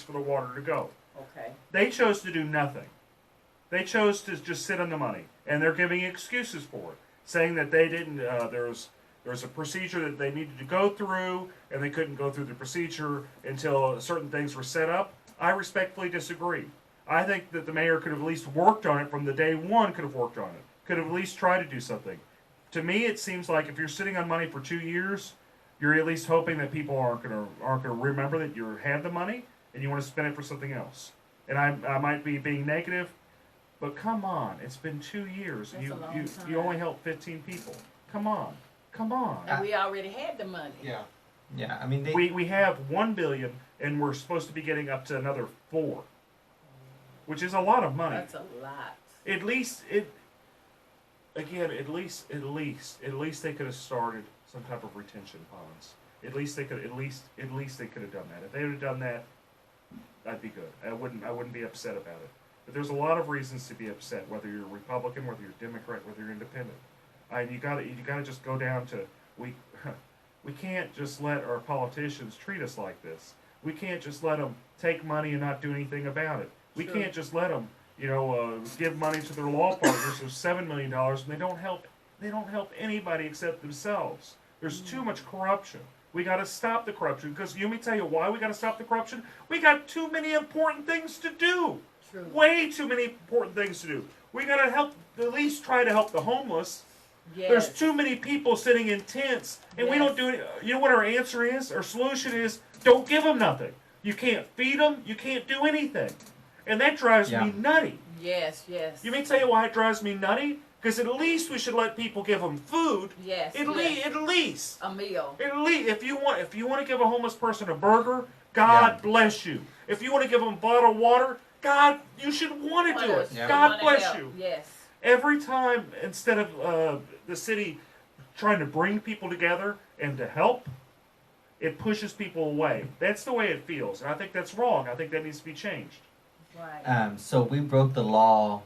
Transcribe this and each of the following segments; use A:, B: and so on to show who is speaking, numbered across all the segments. A: for the water to go.
B: Okay.
A: They chose to do nothing. They chose to just sit on the money, and they're giving excuses for it, saying that they didn't. Uh, there was there was a procedure that they needed to go through, and they couldn't go through the procedure until certain things were set up. I respectfully disagree. I think that the mayor could have at least worked on it from the day one. Could have worked on it. Could have at least tried to do something. To me, it seems like if you're sitting on money for two years, you're at least hoping that people aren't gonna aren't gonna remember that you had the money and you want to spend it for something else. And I, I might be being negative, but come on, it's been two years. and you
B: That's a long
A: you
B: time.
A: you only helped 15 people. Come on, come on.
B: And we already had the money.
C: Yeah.
D: Yeah, I mean, they,
A: we we have one billion, and we're supposed to be getting up to another four, which is a lot of money.
B: That's a lot.
A: at least it. Again, at least, at least, at least they could have started some type of retention ponds. At least they could, at least, at least they could have done that. If they would have done that, I'd be good. I wouldn't, I wouldn't be upset about it. But there's a lot of reasons to be upset, whether you're Republican, whether you're Democrat, whether you're Independent. And you gotta, you gotta just go down to we, we can't just let our politicians treat us like this. We can't just let them take money and not do anything about it. We
B: Sure.
A: can't just let them, you know, uh, give money to their law partners of seven million dollars and they don't help. They don't help anybody except themselves. There's too much corruption. We got to stop the corruption because let me tell you why we got to stop the corruption. We got too many important things to do
B: True.
A: way too many important things to do. We gotta help, at least try to help the homeless.
B: Yes.
A: There's too many people sitting in tents, and we don't
B: Yes.
A: do it. You know what our answer is? Our solution is don't give them nothing. You can't feed them. You can't do anything, and that drives
D: Yeah.
A: me nutty.
B: Yes, yes.
A: You may tell you why it drives me nutty? Because at least we should let people give them food.
B: Yes.
A: At least,
B: yes.
A: at least,
B: A meal.
A: at least, if you want, if you want to give a homeless person a burger, God
D: Yeah.
A: bless you. If you want to give them a bottle of water, God, you should want to do it.
B: Wanna-
D: Yeah.
A: God
B: wanna
A: bless
B: help.
A: you.
B: Yes.
A: Every time, instead of uh, the city trying to bring people together and to help, it pushes people away. That's the way it feels, and I think that's wrong. I think that needs to be changed.
B: Right.
D: um, so we broke the law.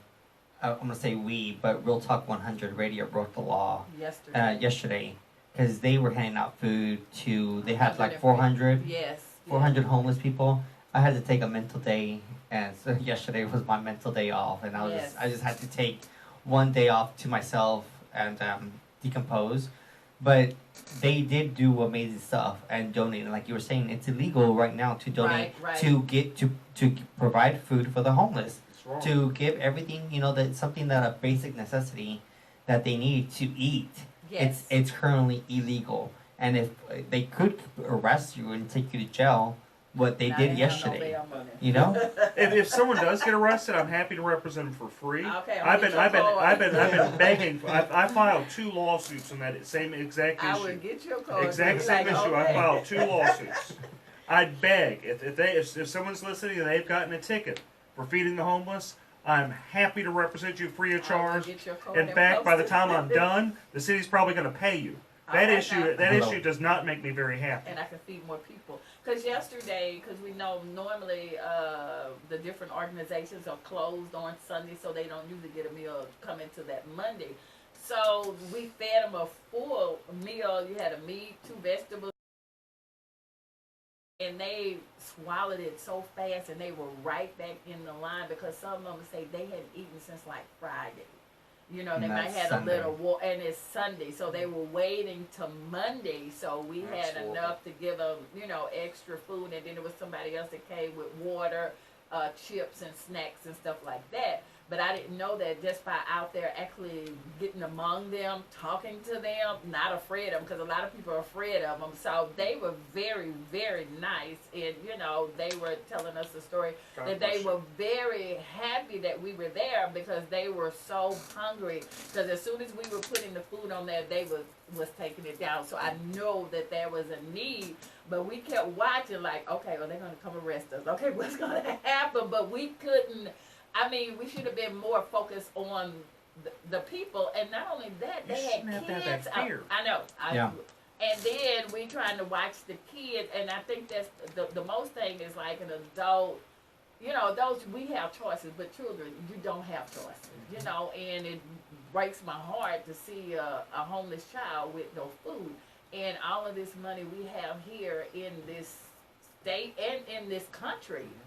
D: Uh, I'm gonna say we, but Real Talk 100 Radio broke the law
B: Yesterday.
D: uh, yesterday because they were handing out food to. They had like
B: 100.
D: 400,
B: yes.
D: 400 homeless people. I had to take a mental day, and so yesterday was my mental day off, and I was
B: Yes.
D: just, I just had to take one day off to myself and um, decompose. But they did do amazing stuff and donate. Like you were saying, it's illegal right now to donate
B: Right, right.
D: to get to to provide food for the homeless
A: It's wrong.
D: to give everything you know that something that a basic necessity that they need to eat
B: Yes.
D: it's it's currently illegal and if uh, they could arrest you and take you to jail what they
B: Now
D: did
B: have no
D: yesterday
B: bail money.
D: you know
A: if, if someone does get arrested, I'm happy to represent them for free.
B: Okay, I'll
A: I've
B: get
A: been,
B: your
A: I've been,
B: card.
A: I've been, I've been begging. I, I filed two lawsuits on that same exact
B: I
A: issue.
B: would get your card.
A: Exact
B: Be
A: same
B: Oh, like,
A: issue. I
B: okay.
A: filed two lawsuits. I'd beg if, if they if, if someone's listening and they've gotten a ticket for feeding the homeless, I'm happy to represent you free
B: I
A: of
B: would
A: charge.
B: get your card
A: In
B: and
A: fact, by the
B: post it.
A: time I'm done, the city's probably going to pay you. That
B: Okay.
A: issue that
D: Hello.
A: issue does not make me very happy.
B: Oh, and I can feed more people. Because yesterday, because we know normally uh, the different organizations are closed on Sunday, so they don't usually get a meal coming to that Monday. So we fed them a full meal. You had a meat, two vegetables, and they swallowed it so fast, and they were right back in the line because some of them say they hadn't eaten since like Friday. You know, they
D: And
B: might
D: that's
B: had a
D: Sunday.
B: little war, and it's Sunday, so they were waiting till Monday. So we
C: That's
B: had
C: horrible.
B: enough to give them, you know, extra food, and then there was somebody else that came with water, uh, chips, and snacks and stuff like that. But I didn't know that just by out there actually getting among them, talking to them, not afraid of them, because a lot of people are afraid of them. So they were very, very nice, and you know, they were telling us the story
C: God
B: that
C: bless
B: they
C: you.
B: were very happy that we were there because they were so hungry. Because as soon as we were putting the food on there, they was was taking it down. So I know that there was a need, but we kept watching like, okay, well they're gonna come arrest us. Okay, what's gonna happen? But we couldn't. I mean, we should have been more focused on the, the people, and not only that,
A: You
B: they
A: shouldn't
B: had
A: have to have
B: kids.
A: that
B: out-
A: fear.
B: I know. I,
D: Yeah.
B: And then we trying to watch the kids, and I think that's the, the most thing is like an adult. You know, those we have choices, but children, you don't have choices. You know, and it breaks my heart to see a, a homeless child with no food, and all of this money we have here in this state and in this country